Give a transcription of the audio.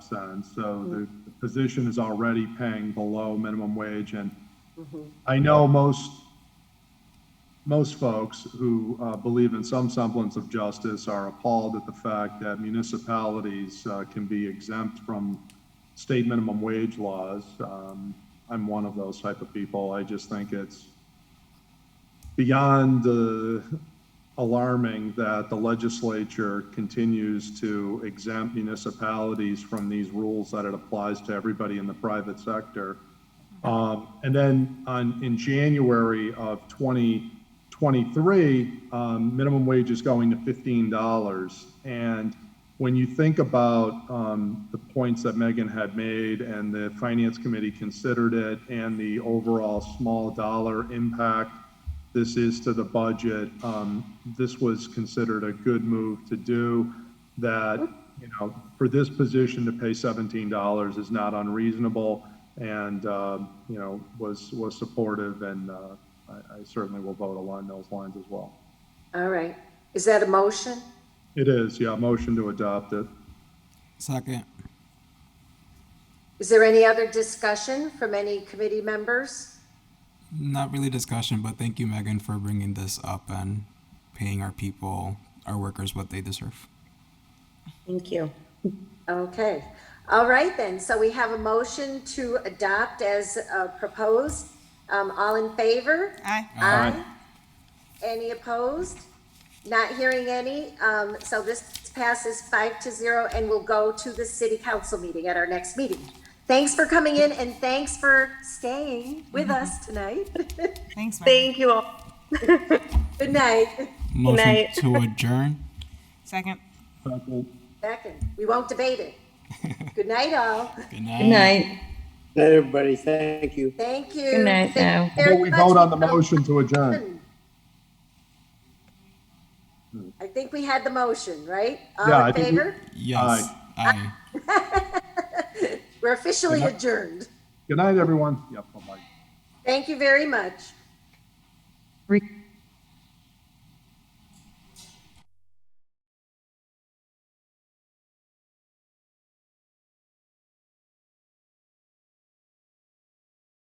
sense. So the the position is already paying below minimum wage and I know most, most folks who uh, believe in some semblance of justice are appalled at the fact that municipalities uh, can be exempt from state minimum wage laws. Um, I'm one of those type of people. I just think it's beyond uh, alarming that the legislature continues to exempt municipalities from these rules that it applies to everybody in the private sector. Um, And then on, in January of 2023, um, minimum wage is going to $15. And when you think about um, the points that Megan had made and the Finance Committee considered it and the overall small dollar impact this is to the budget, um, this was considered a good move to do that, you know, for this position to pay seventeen dollars is not unreasonable and, uh, you know, was, was supportive and, uh, I, I certainly will vote along those lines as well. All right. Is that a motion? It is, yeah, motion to adopt it. Second. Is there any other discussion from any committee members? Not really discussion, but thank you, Megan, for bringing this up and paying our people, our workers, what they deserve. Thank you. Okay. All right then. So we have a motion to adopt as uh, proposed. Um, all in favor? Aye. Aye. Any opposed? Not hearing any. Um, so this passes five to zero and will go to the city council meeting at our next meeting. Thanks for coming in and thanks for staying with us tonight. Thanks, Megan. Thank you all. Good night. Motion night. to adjourn. Second. Second. Second, we won't debate it. Good night, all. Good night. Good night. Night, everybody. Thank you. Thank you. Good night Thank now. you very Will we much. Hmm. vote on the motion to adjourn? I think we had the motion, right? Yeah, All I in think we- favor? Yes. Aye. We're officially Good night. adjourned. Good night, everyone. Yep, bye-bye. Thank you very much. Re-